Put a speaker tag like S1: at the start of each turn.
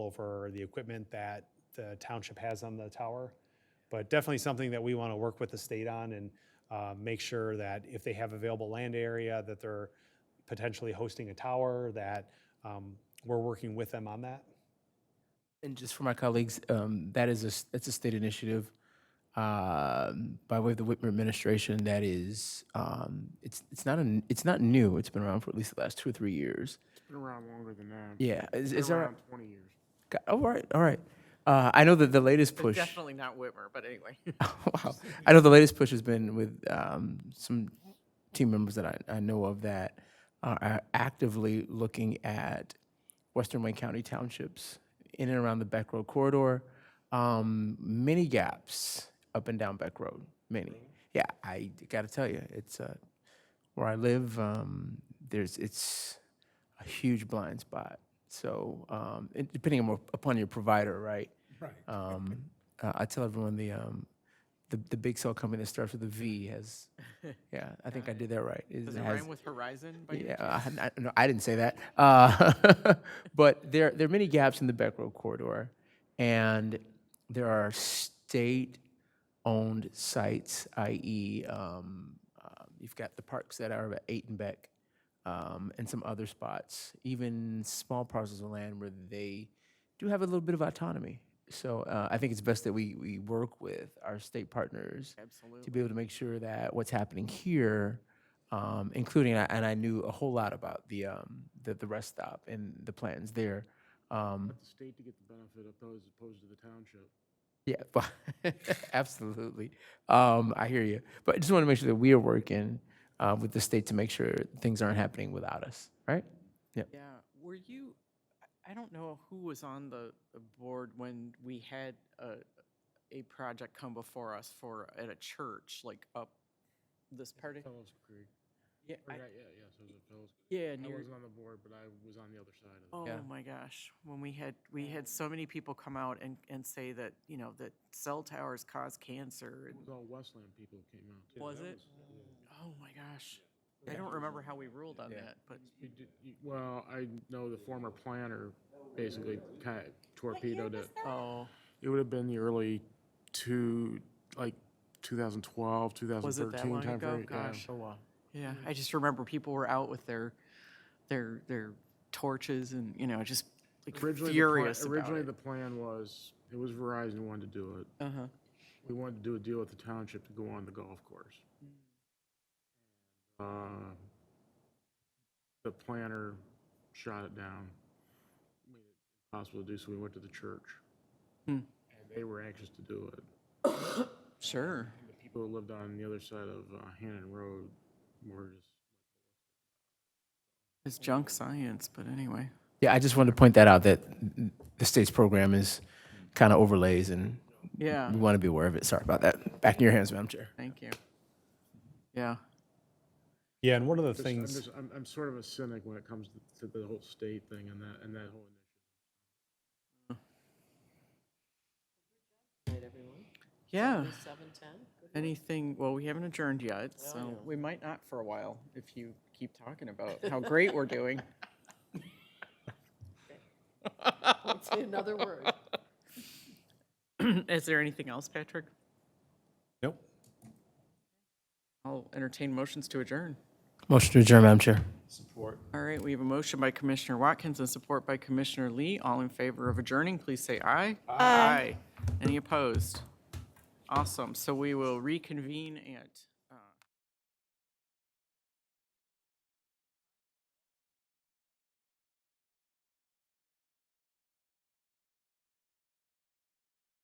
S1: for the equipment that the township has on the tower. But definitely something that we want to work with the state on and uh, make sure that if they have available land area, that they're potentially hosting a tower, that um, we're working with them on that.
S2: And just for my colleagues, um, that is a, s- that's a state initiative um, by way of the Whitmer administration. That is, um, it's it's not an it's not new. It's been around for at least the last two or three years.
S3: Been around longer than that.
S2: Yeah, is, is
S3: Been
S2: there?
S3: around twenty years.
S2: a- Oh, all right, all right. Uh, I know that the latest
S4: It's
S2: push. Oh,
S4: Definitely not Whitmer, but anyway.
S2: wow. I know the latest push has been with um, some team members that I, I know of that are are actively looking at Western Wayne County townships in and around the Beck Road corridor. Um, many gaps up and down Beck Road, many. Yeah, I got to tell you, it's uh, where I live. Um, there's it's a huge blind spot. So um, it- depending on, what- upon your provider, right? Right. Um, uh, I tell everyone the, um, the the big cell company that starts with a V has. Yeah, I think I did that right. It
S4: Does it
S2: has-
S4: rhyme with Horizon? By any
S2: yeah,
S4: chance?
S2: I, hadn't- I- no, I didn't say that. Uh, but there, there are many gaps in the Beck Road corridor, and there are state-owned sites, i.e., um, uh, you've got the parks that are at Eight and Beck, um, and some other spots, even small parcels of land where they do have a little bit of autonomy. So uh, I think it's best that we, we work with our state partners
S4: Absolutely.
S2: to be able to make sure that what's happening here, um, including, and I- and I knew a whole lot about the, um, the, the rest stop and the plans there. Um,
S3: Let the state to get the benefit of those as opposed to the township.
S2: yeah, but absolutely. Um, I hear you. But I just want to make sure that we are working, uh, with the state to make sure things aren't happening without us, right?
S4: Yeah. Were you, I- I don't know who was on the the board when we had a, a project come before us for, at a church, like up this part of.
S3: Fellows Creek.
S4: Yeah,
S3: Or
S4: I-
S3: Yeah, yeah, yeah, so it was Fellows.
S4: yeah,
S3: I
S4: near,
S3: was on the board, but I was on the other side of it.
S4: oh
S2: Yeah.
S4: my gosh, when we had, we had so many people come out and, and say that, you know, that cell towers cause cancer.
S3: It
S4: and-
S3: was all Westland people who came out. too.
S4: Was
S3: That
S4: it? Oh my gosh. I don't remember how we ruled on that, but
S3: You did, you, well, I know the former planner basically kind of torpedoed it.
S4: Oh,
S3: It would have been the early two, like 2012, 2013
S4: was it that long
S3: time
S4: ago?
S3: frame, yeah.
S4: Gosh, oh wow. Yeah, I just remember people were out with their, their, their torches and, you know, just like
S3: Originally, the pla-
S4: furious about
S3: Originally,
S4: it.
S3: the plan was, it was Verizon who wanted to do it.
S4: Uh-huh.
S3: we wanted to do a deal with the township to go on the golf course. Uh, The planner shot it down. Made it Impossible to do, so we went to the church.
S4: Hmm.
S3: And they were anxious to do it.
S4: Sure.
S3: The people who lived on the other side of uh, Hannon Road were just,
S4: It's junk science, but anyway.
S2: Yeah, I just wanted to point that out, that the state's program is kind of overlays and
S4: Yeah,
S3: Mm-hmm.
S2: we want to be aware of it. Sorry about that. Back in your hands, Madam Chair.
S4: thank you. Yeah,
S1: Yeah, and one of the
S3: just- I'm
S1: things.
S3: just, I'm, I'm sort of a cynic when it comes to the whole state thing and that, and that whole initiative.
S5: Right, everyone?
S4: yeah.
S5: Seven ten?
S4: Anything, well, we haven't adjourned yet, so we might not for a while if you keep talking about how great we're doing.
S5: Let's say another word.
S4: Is there anything else, Patrick?
S1: Nope.
S4: I'll entertain motions to adjourn.
S2: Motion to adjourn, Madam Chair.
S4: All right, we have a motion by Commissioner Watkins and support by Commissioner Lee. All in favor of adjourning, please say aye. Aye. Any opposed? Awesome. So we will reconvene at